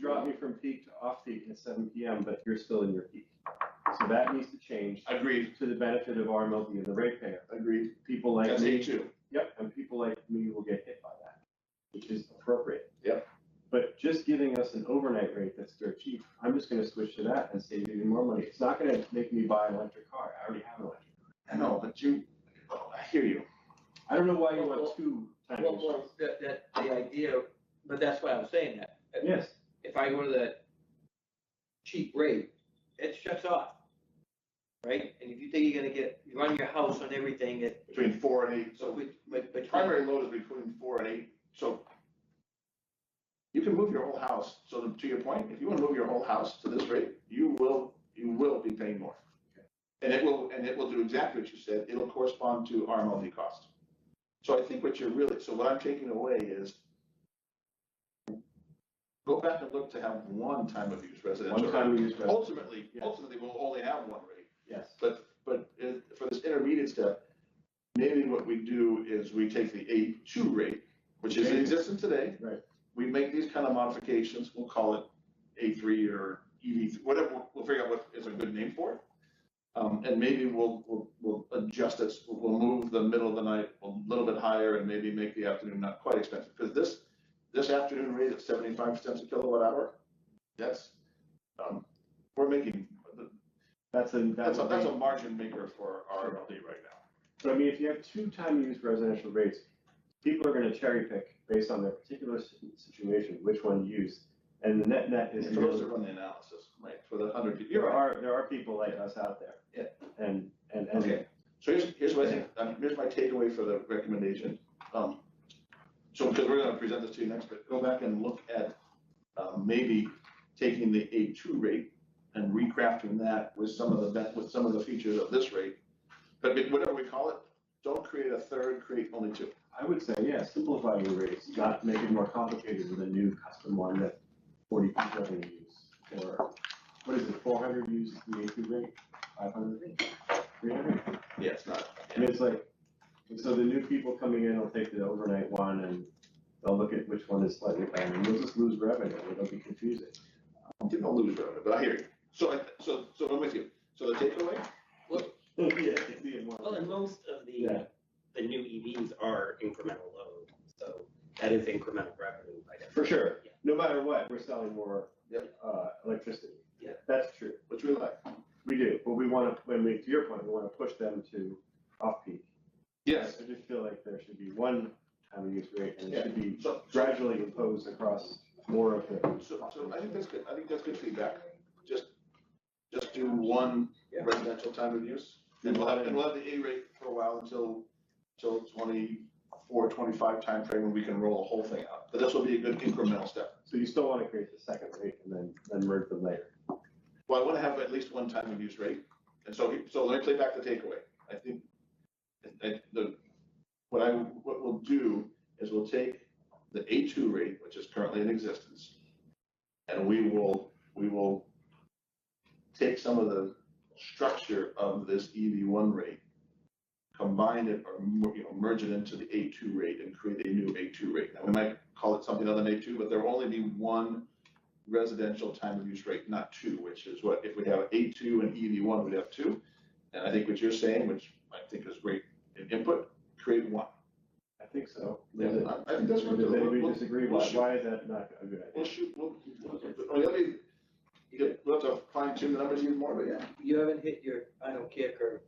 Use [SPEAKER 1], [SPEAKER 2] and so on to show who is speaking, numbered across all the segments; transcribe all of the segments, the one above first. [SPEAKER 1] dropped me from peak to off-peak at seven PM, but you're still in your peak. So that needs to change
[SPEAKER 2] Agreed,
[SPEAKER 1] to the benefit of RMLD and the ratepayer.
[SPEAKER 2] agreed.
[SPEAKER 1] People like
[SPEAKER 2] That's
[SPEAKER 1] me.
[SPEAKER 2] it too.
[SPEAKER 1] Yep, and people like me will get hit by that, which is appropriate.
[SPEAKER 2] Yep.
[SPEAKER 1] But just giving us an overnight rate that's dirt cheap, I'm just gonna switch to that and save even more money. It's not gonna make me buy an electric car, I already have an electric.
[SPEAKER 2] I know, but you, oh, I hear you.
[SPEAKER 1] I don't know why you
[SPEAKER 3] Well,
[SPEAKER 1] want two time
[SPEAKER 3] Well,
[SPEAKER 1] constraints.
[SPEAKER 3] well, that, that, the idea, but that's why I'm saying that.
[SPEAKER 1] Yes,
[SPEAKER 3] If I go to that cheap rate, it shuts off. Right? And if you think you're gonna get, you run your house on everything, it,
[SPEAKER 2] Between four and eight,
[SPEAKER 3] so
[SPEAKER 2] so
[SPEAKER 3] with, with,
[SPEAKER 2] the
[SPEAKER 3] between-
[SPEAKER 2] primary load is between four and eight, so you can move your whole house. So to- to your point, if you wanna move your whole house to this rate, you will, you will be paying more. And it will, and it will do exactly what you said. It'll correspond to RMLD cost. So I think what you're really, so what I'm taking away is go back and look to have one time of use residential.
[SPEAKER 1] one
[SPEAKER 2] rate.
[SPEAKER 1] time use revenue,
[SPEAKER 2] Ultimately,
[SPEAKER 1] Yeah.
[SPEAKER 2] ultimately, we'll only have one rate.
[SPEAKER 1] yes.
[SPEAKER 2] But, but if- for this intermediate step, maybe what we do is we take the eight two rate, which is in existence today.
[SPEAKER 1] Right.
[SPEAKER 2] We make these kind of modifications, we'll call it A three or EV, whatever, we'll- we'll figure out what is a good name for it. Um, and maybe we'll, we'll, we'll adjust it, we'll- we'll move the middle of the night a little bit higher and maybe make the afternoon not quite expensive. Because this, this afternoon rate at seventy-five cents a kilowatt hour, that's, um, we're making,
[SPEAKER 1] That's a,
[SPEAKER 2] that's
[SPEAKER 1] that's
[SPEAKER 2] a, that's
[SPEAKER 1] a,
[SPEAKER 2] a margin maker for RMLD right now.
[SPEAKER 1] but I mean, if you have two time use residential rates, people are gonna cherry pick based on their particular s- situation, which one to use. And the net net is.
[SPEAKER 2] For those that run the analysis, right, for the hundred, people.
[SPEAKER 1] There
[SPEAKER 2] you're right.
[SPEAKER 1] are, there are people like us out there. And, and, and,
[SPEAKER 2] Okay, so here's, here's what I think, um, here's my takeaway for the recommendation. Um, So, because we're gonna present this to you next, but go back and look at, um, maybe taking the A two rate and recrafting that with some of the, ben- with some of the features of this rate. But we- whatever we call it, don't create a third, create only two.
[SPEAKER 1] I would say, yeah, simplify your rates, not make it more complicated with a new custom one that forty people are gonna use. Or, what is it, four hundred use the A two rate, five hundred, three hundred?
[SPEAKER 2] Yeah, it's not.
[SPEAKER 1] I mean, it's like, and so the new people coming in will take the overnight one and they'll look at which one is slightly better, and we'll just lose revenue, it'll be confusing.
[SPEAKER 2] Didn't lose revenue, but I hear you. So, I- so, so I'm with you. So the takeaway,
[SPEAKER 1] Yeah, it'd be more-
[SPEAKER 4] Well, and most of the,
[SPEAKER 1] Yeah.
[SPEAKER 4] the new EVs are incremental load, so that is incremental revenue by definition.
[SPEAKER 1] For sure,
[SPEAKER 4] Yeah.
[SPEAKER 1] no matter what, we're selling more,
[SPEAKER 2] Yep.
[SPEAKER 1] uh, electricity.
[SPEAKER 4] Yeah.
[SPEAKER 1] That's true.
[SPEAKER 2] which we like.
[SPEAKER 1] We do, but we wanna, when we, to your point, we wanna push them to off-peak.
[SPEAKER 2] Yes,
[SPEAKER 1] I just feel like there should be one time use rate, and it should be
[SPEAKER 2] so, so,
[SPEAKER 1] gradually imposed across more of the.
[SPEAKER 2] so I think that's good, I think that's good feedback, just, just do one
[SPEAKER 3] Yeah.
[SPEAKER 2] residential time of use. And we'll have, and we'll have the A rate for a while until, until twenty-four, twenty-five timeframe when we can roll the whole thing out, but this will be a good incremental step.
[SPEAKER 1] So you still wanna create the second rate and then, then merge them later.
[SPEAKER 2] Well, I wanna have at least one time of use rate, and so, he- so let me play back the takeaway, I think, I- I- the, what I, what we'll do is we'll take the A two rate, which is currently in existence, and we will, we will take some of the structure of this EV one rate, combine it or, mer- you know, merge it into the A two rate and create a new A two rate. Now, we might call it something other than A two, but there will only be one residential time of use rate, not two, which is what, if we have A two and EV one, we'd have two. And I think what you're saying, which I think is great in input, create one.
[SPEAKER 1] I think so. Leave it.
[SPEAKER 2] I I think that's what
[SPEAKER 1] Does
[SPEAKER 2] we'll,
[SPEAKER 1] anybody
[SPEAKER 2] we'll,
[SPEAKER 1] disagree? Why, why is that not a good
[SPEAKER 2] we'll
[SPEAKER 1] idea?
[SPEAKER 2] shoot, we'll, we'll, let me, we'll have to fine tune the numbers even more, but yeah.
[SPEAKER 3] you haven't hit your, I don't care curve.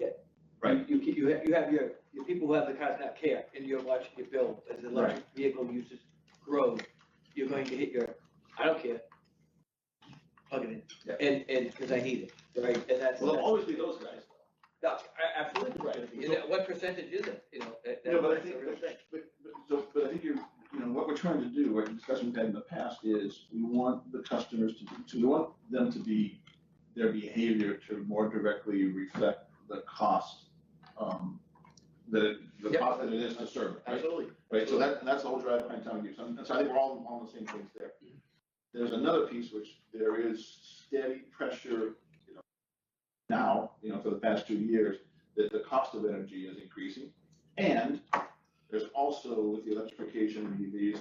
[SPEAKER 3] Yet.
[SPEAKER 2] Right.
[SPEAKER 3] You, you, you have, you have your, your people who have the cars not care, and you're watching your bill, as the electric vehicle uses grow, you're going to hit your, I don't care. Plug it
[SPEAKER 2] Yeah.
[SPEAKER 3] in, and, and, cause I need it, right, and that's.
[SPEAKER 2] Well,
[SPEAKER 3] that's-
[SPEAKER 2] there'll always be those guys.
[SPEAKER 3] No, I- absolutely,
[SPEAKER 2] Right.
[SPEAKER 3] You know, what percentage is it, you know, that,
[SPEAKER 2] Yeah, but I
[SPEAKER 3] that's the
[SPEAKER 2] think-
[SPEAKER 3] real thing.
[SPEAKER 2] But, but, so, but I think you're, you know, what we're trying to do, what discussion we've had in the past is we want the customers to, be- to, we want them to be, their behavior to more directly reflect the cost, um, that, it- the
[SPEAKER 3] Yeah.
[SPEAKER 2] cost that it is to serve, right?
[SPEAKER 3] Absolutely.
[SPEAKER 2] Right, so that, and that's the whole drive behind town use, and so I think we're all on the same page there. There's another piece which there is steady pressure, you know, now, you know, for the past two years, that the cost of E energy is increasing. And there's also with the electrification of EVs,